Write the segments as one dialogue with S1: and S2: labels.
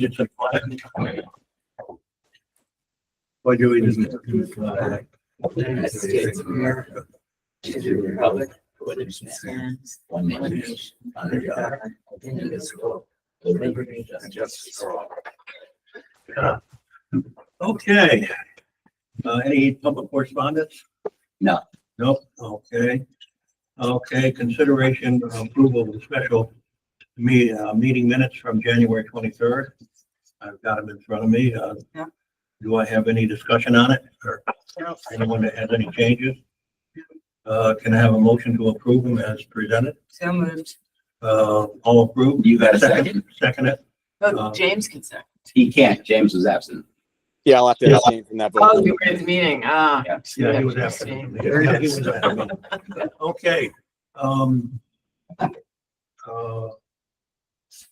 S1: Egyptian flag. Pledge allegiance to the flag of the United States of America, to the republic for which it stands, one nation, under God, indivisible, with liberty and justice for all. Okay. Uh, any public correspondence?
S2: No.
S1: Nope, okay. Okay, consideration of approval of the special me, uh, meeting minutes from January twenty-third. I've got them in front of me. Uh,
S3: Yeah.
S1: do I have any discussion on it or
S3: No.
S1: anyone that has any changes? Uh, can I have a motion to approve them as presented?
S3: So moved.
S1: Uh, all approved?
S2: You got a second?
S1: Second it?
S3: Oh,
S1: Um,
S3: James can second.
S2: He can't. James was absent.
S4: Yeah, I'll have to abstain from that
S3: Oh,
S4: vote.
S3: you were at the meeting, ah.
S2: Yeah.
S1: Yeah, he was after me. Yeah, he was after me. Okay, um. uh,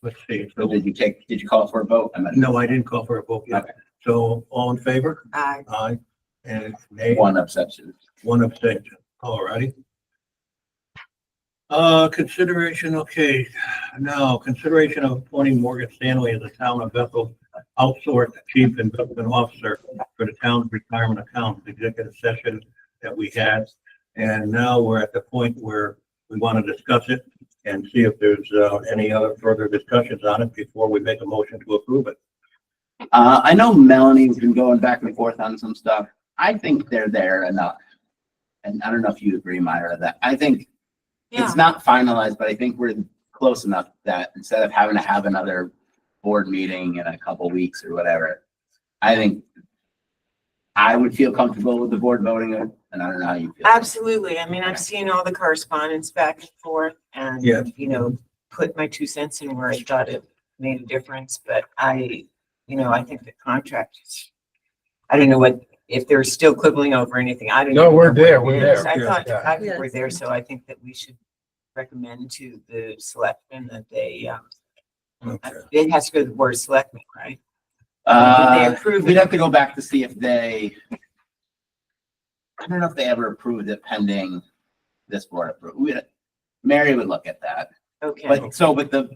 S1: Let's see,
S2: So
S1: so,
S2: did you take, did you call for a vote? I meant
S1: no, I didn't call for a vote yet.
S2: Okay.
S1: So all in favor?
S3: Aye.
S1: Aye. And nay?
S2: one abstention.
S1: One abstention, all righty. Uh, consideration, okay, now, consideration of appointing Morgan Stanley as the town of Bethel outsourced chief investment officer for the town's retirement account, the executive session that we had. And now we're at the point where we want to discuss it and see if there's, uh, any other further discussions on it before we make a motion to approve it.
S2: Uh, I know Melanie's been going back and forth on some stuff. I think they're there enough. And I don't know if you agree, Myra, that I think
S3: Yeah,
S2: it's not finalized, but I think we're close enough that instead of having to have another board meeting in a couple weeks or whatever, I think I would feel comfortable with the board voting it, and I don't know how you feel.
S3: absolutely. I mean, I've seen all the correspondence back and forth and,
S1: Yeah.
S3: you know, put my two cents in where I thought it made a difference, but I, you know, I think the contract is, I don't know what, if they're still quibbling over anything, I don't.
S5: No,
S3: even
S5: we're
S3: know what
S5: there,
S3: it
S5: we're
S3: is.
S5: there,
S3: I
S5: yeah,
S3: thought,
S5: yeah.
S3: I think we're there, so I think that we should recommend to the selectmen that they, um, it has to go to the board of selectmen, right?
S2: Uh,
S3: Did they approve
S2: we'd
S3: it?
S2: have to go back to see if they. I don't know if they ever approved it pending this board approval. We, Mary would look at that,
S3: Okay,
S2: but so with the.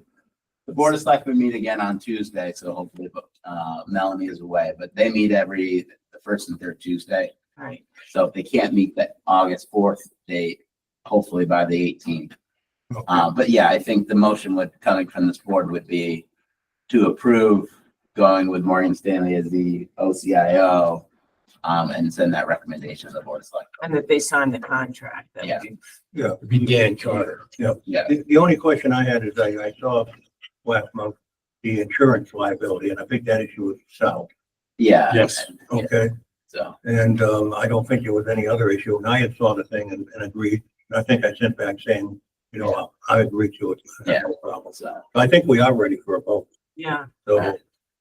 S2: The board of selectmen meet again on Tuesday, so hopefully, uh, Melanie is away, but they meet every, the first and third Tuesday.
S3: right.
S2: So if they can't meet that August fourth date, hopefully by the eighteenth.
S1: Okay.
S2: Uh, but yeah, I think the motion would, coming from this board would be to approve going with Maureen Stanley as the OCIO. Um, and send that recommendation to the board of selectmen.
S3: And that they signed the contract. that
S2: Yeah.
S3: we-
S1: Yeah,
S5: Began charter.
S2: Yeah,
S1: The, the only question I had is I, I saw last month the insurance liability, and I think that issue was solved,
S2: yeah.
S5: Yes.
S1: okay?
S2: So,
S1: And, um, I don't think there was any other issue, and I had saw the thing and, and agreed, and I think I sent back saying, you know, I I agree to it.
S2: Yeah.
S1: No problem.
S2: so
S1: I think we are ready for a vote,
S3: Yeah,
S1: so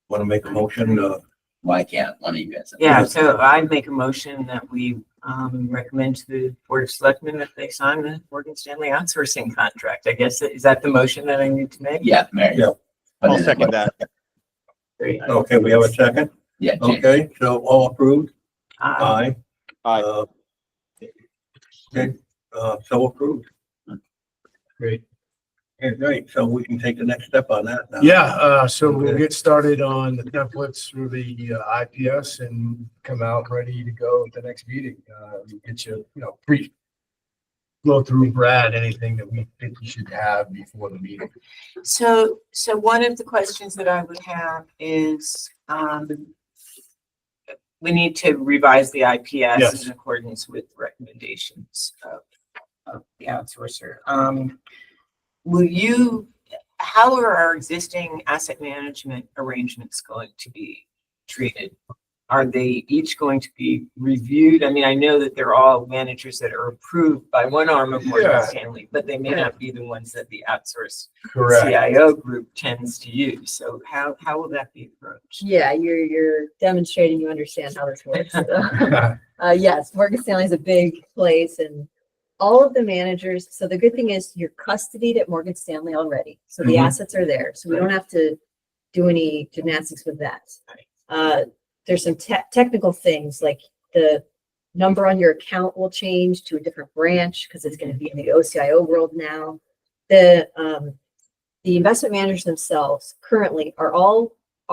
S1: want to make a motion, uh,
S2: why can't one of you guys?
S3: yeah, so I make a motion that we um recommend to the Board of Selectmen that they sign the Morgan Stanley outsourcing contract. I guess, is that the motion that I need to make?
S2: Yeah, Mary.
S1: Yeah.
S2: Put it
S4: I'll
S2: in.
S4: second that.
S3: Great.
S1: okay, we have a second,
S2: Yeah, James.
S1: okay, so all approved,
S3: Uh,
S1: aye?
S4: Aye.
S1: Uh, Okay, uh, so approved. Great. Okay, great, so we can take the next step on that now.
S5: Yeah, uh, so we'll get started on the templates through the uh, IPS and come out ready to go at the next meeting. Uh, we'll get you, you know, brief. Go through Brad, anything that we think you should have before the meeting.
S3: So, so one of the questions that I would have is um we need to revise the IPS
S5: Yes.
S3: in accordance with recommendations of of the outsourcer. Um, will you, how are our existing asset management arrangements going to be treated? Are they each going to be reviewed? I mean, I know that they're all managers that are approved by one arm of Morgan
S5: Yeah.
S3: Stanley, but they may not be the ones that the outsourced CIO group tends to use. So how, how will that be approached?
S6: Yeah, you're, you're demonstrating you understand how this works.
S5: Correct.
S6: Uh, yes, Morgan Stanley is a big place and all of the managers, so the good thing is you're custodied at Morgan Stanley already. So the
S5: Mhm.
S6: assets are there, so we don't have to do any gymnastics with that.
S3: Right.
S6: Uh, there's some te- technical things like the number on your account will change to a different branch because it's going to be in the OCIO world now. The, um, the investment managers themselves currently are all